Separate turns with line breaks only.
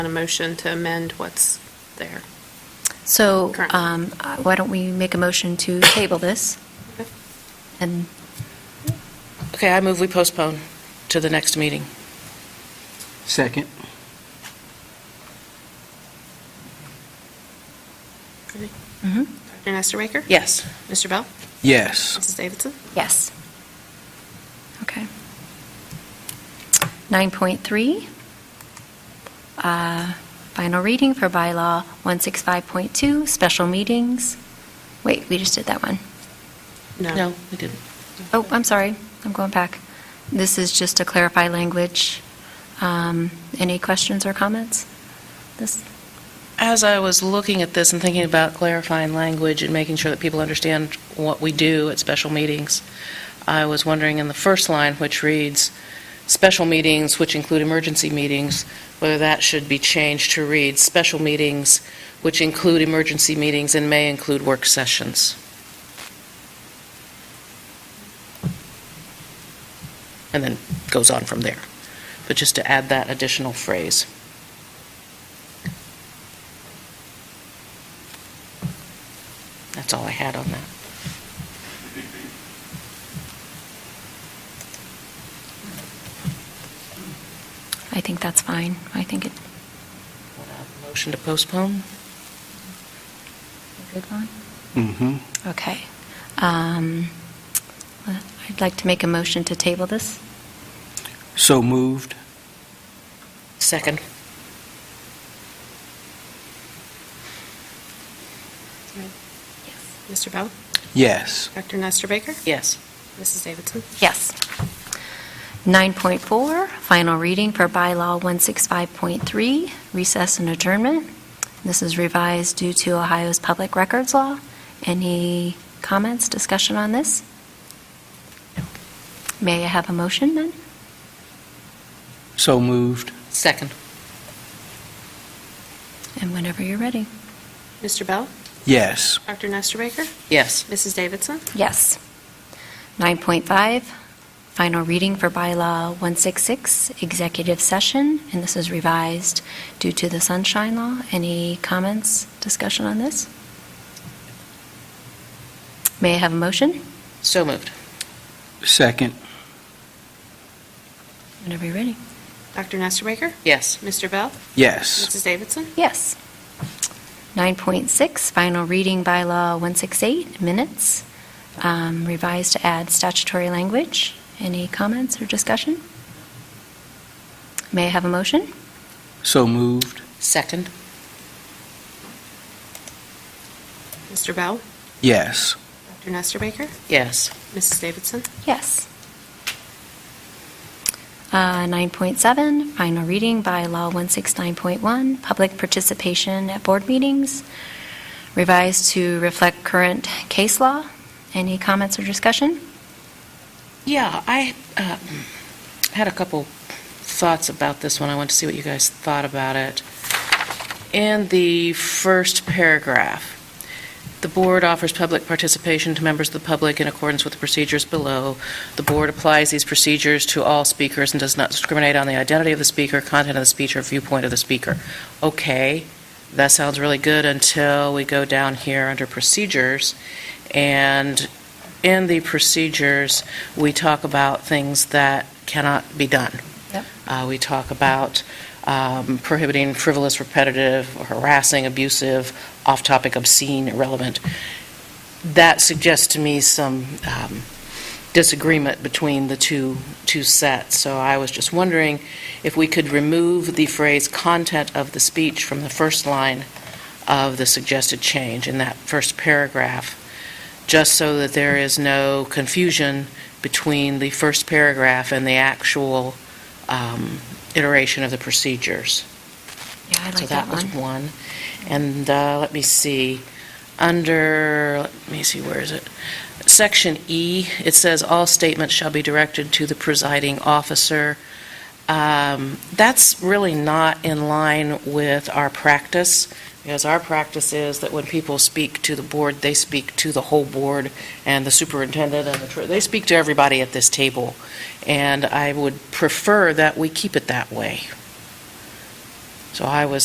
on a motion to amend what's there.
So
Correct.
um, uh, why don't we make a motion to table this?
Okay.
And
Okay, I move we postpone to the next meeting.
Second.
Dr. Nestor Baker?
Yes.
Mr. Bell?
Mm-hmm. Yes.
Mrs. Davidson?
yes. Okay. 9.3, uh, final reading for bylaw 165.2, special meetings. Wait, we just did that one.
No, we didn't.
Oh, I'm sorry, I'm going back. This is just to clarify language. Um, Any questions or comments? This,
As I was looking at this and thinking about clarifying language and making sure that people understand what we do at special meetings, I was wondering in the first line, which reads, "Special meetings, which include emergency meetings," whether that should be changed to read, "Special meetings, which include emergency meetings and may include work sessions." And then goes on from there. But just to add that additional phrase. That's all I had on that.
I think that's fine. I think it,
Motion to postpone?
good one?
Mm-hmm.
Okay. Um, I'd like to make a motion to table this.
So moved.
Second.
Mr. Bell?
Yes.
Dr. Nestor Baker?
Yes.
Mrs. Davidson?
Yes. 9.4, final reading for bylaw 165.3, recess and adjournment. This is revised due to Ohio's public records law. Any comments, discussion on this? May I have a motion then?
So moved.
Second.
And whenever you're ready.
Mr. Bell?
Yes.
Dr. Nestor Baker?
Yes.
Mrs. Davidson?
Yes. 9.5, final reading for bylaw 166, executive session, and this is revised due to the sunshine law. Any comments, discussion on this? May I have a motion?
So moved.
Second.
Whenever you're ready.
Dr. Nestor Baker?
Yes.
Mr. Bell?
Yes.
Mrs. Davidson?
Yes. 9.6, final reading bylaw 168, minutes, um, revised to add statutory language. Any comments or discussion? May I have a motion?
So moved.
Second.
Mr. Bell?
Yes.
Dr. Nestor Baker?
Yes.
Mrs. Davidson?
Yes. Uh, 9.7, final reading by Law 169.1, public participation at board meetings, revised to reflect current case law. Any comments or discussion?
Yeah, I uh, had a couple thoughts about this one. I wanted to see what you guys thought about it. In the first paragraph, the board offers public participation to members of the public in accordance with the procedures below. The board applies these procedures to all speakers and does not discriminate on the identity of the speaker, content of the speech, or viewpoint of the speaker. Okay, that sounds really good until we go down here under procedures. And in the procedures, we talk about things that cannot be done.
Yep.
Uh, We talk about um, prohibiting frivolous, repetitive, harassing, abusive, off-topic, obscene, irrelevant. That suggests to me some um, disagreement between the two, two sets. So I was just wondering if we could remove the phrase "content of the speech" from the first line of the suggested change in that first paragraph, just so that there is no confusion between the first paragraph and the actual um, iteration of the procedures.
Yeah, I
So
like
that
that
was
one.
one. And uh, let me see, under, let me see, where is it? Section E, it says, "All statements shall be directed to the presiding officer." Um, That's really not in line with our practice, because our practice is that when people speak to the board, they speak to the whole board and the superintendent and the, tr- they speak to everybody at this table. And I would prefer that we keep it that way. So I was